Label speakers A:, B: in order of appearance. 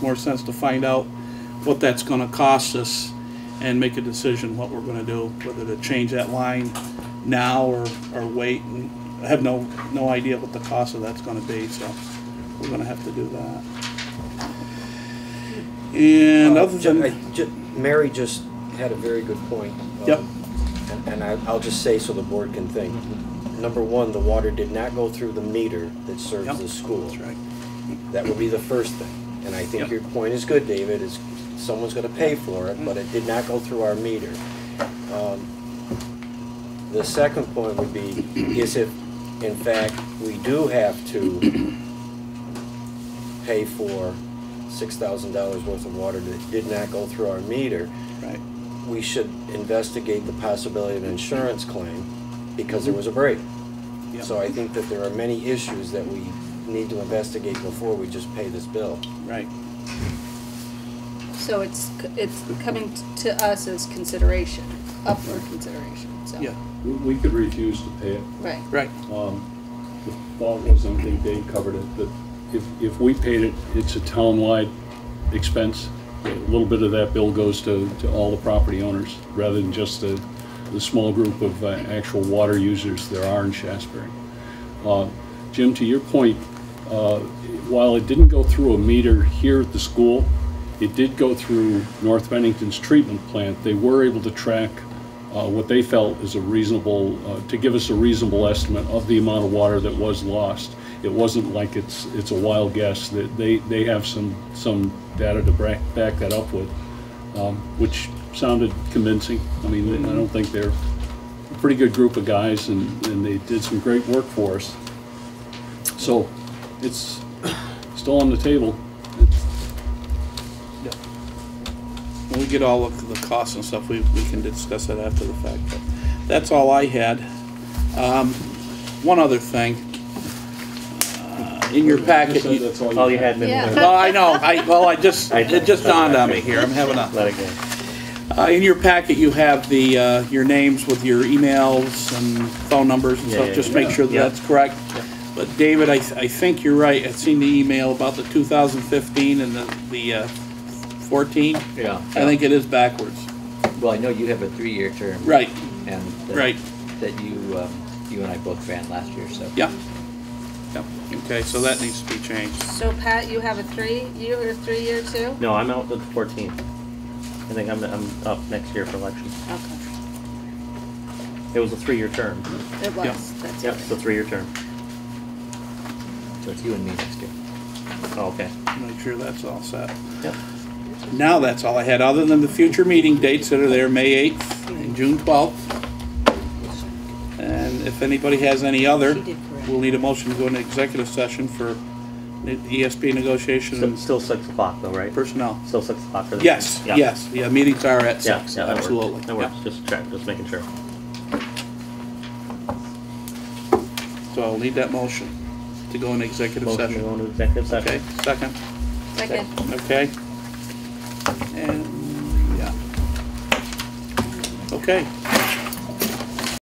A: more sense to find out what that's gonna cost us and make a decision what we're gonna do, whether to change that line now or, or wait. And I have no, no idea what the cost of that's gonna be, so we're gonna have to do that. And
B: Uh,
A: other
B: ju-
A: than.
B: I ju- Mary just had a very good point. um,
A: Yep.
B: and- And I, I'll just say so the board can think. Number one, the water did not go through the meter that serves
A: Mm-hmm. Yep.
B: the school.
A: That's right.
B: That would be the first thing. And I think
A: Yep.
B: your point is good, David, is someone's gonna pay for it, but it did not go through our meter. Um, The second point would be, is if, in fact, we do have to pay for six thousand dollars worth of water that did not go through our meter,
A: Right,
B: we should investigate the possibility of an insurance claim because there was a break.
A: yeah,
B: So I think that there are many issues that we need to investigate before we just pay this bill.
A: right,
C: So it's, c- it's coming t- to us as consideration, up for consideration, so.
A: yeah,
D: We- We could refuse to pay it.
C: Right,
A: right,
D: Um, The thought was, I think Dave covered it, that if, if we paid it, it's a town-wide expense. A little bit of that bill goes to, to all the property owners, rather than just the, the small group of uh, actual water users there are in Shasberry. Uh, Jim, to your point, uh, while it didn't go through a meter here at the school, it did go through North Bennington's treatment plant. They were able to track uh, what they felt is a reasonable, uh, to give us a reasonable estimate of the amount of water that was lost. It wasn't like it's, it's a wild guess, that they, they have some, some data to back, back that up with, um, which sounded convincing. I mean, I don't think they're, a pretty good group of guys, and, and they did some great work for us. So it's still on the table.
A: yeah. When we get all of the costs and stuff, we, we can discuss that after the fact, but that's all I had. Um, one other thing. Uh, In your packet,
D: Just said
A: you- oh,
D: that's all
E: All
D: you
E: Oh, you
D: had.
E: had been
C: Yeah.
A: well, I know, I, well, I just,
E: I-
A: it just dawned on me here, I'm having a.
E: let it go.
A: Uh, in your packet, you have the, uh, your names with your emails and phone numbers and
E: Yeah,
A: stuff,
E: yeah,
A: just
E: yeah.
A: make sure that
E: Yeah.
A: that's correct. But David, I, I think you're right, I've seen the email about the two thousand fifteen and the, the, uh, fourteen.
F: Yeah,
A: I think it is backwards.
F: well, I know you have a three-year term.
A: Right,
F: And. that-
A: Right.
F: That you, um, you and I both ran last year, so.
A: yeah. Yep, okay, so that needs to be changed.
C: so Pat, you have a three, you have a three-year too?
E: No, I'm out the 14th. I think I'm, I'm up next year for election.
C: Okay,
E: It was a three-year term.
C: it was, that's
E: Yep, it's a
C: right.
E: three-year term.
F: So it's you and me next year.
E: Oh, okay.
A: Make sure that's all set.
E: Yep.
A: Now that's all I had, other than the future meeting dates that are there, May 8th and June 12th. And if anybody has any other,
C: She did correct.
A: we'll need a motion to go into executive session for E ne- ESP negotiation
E: Still,
A: and
E: still six o'clock though, right?
A: personnel.
E: Still six o'clock for the.
A: Yes,
E: Yeah.
A: yes, yeah, meetings are at
E: Yeah,
A: six.
E: yeah, that works.
A: absolutely.
E: That works, just check, just making sure.
A: Yeah. So I'll need that motion to go into executive
E: Motion to
A: session.
E: go into executive
A: Okay,
E: session.
A: second,
C: Second,
A: okay? And, yeah. Okay,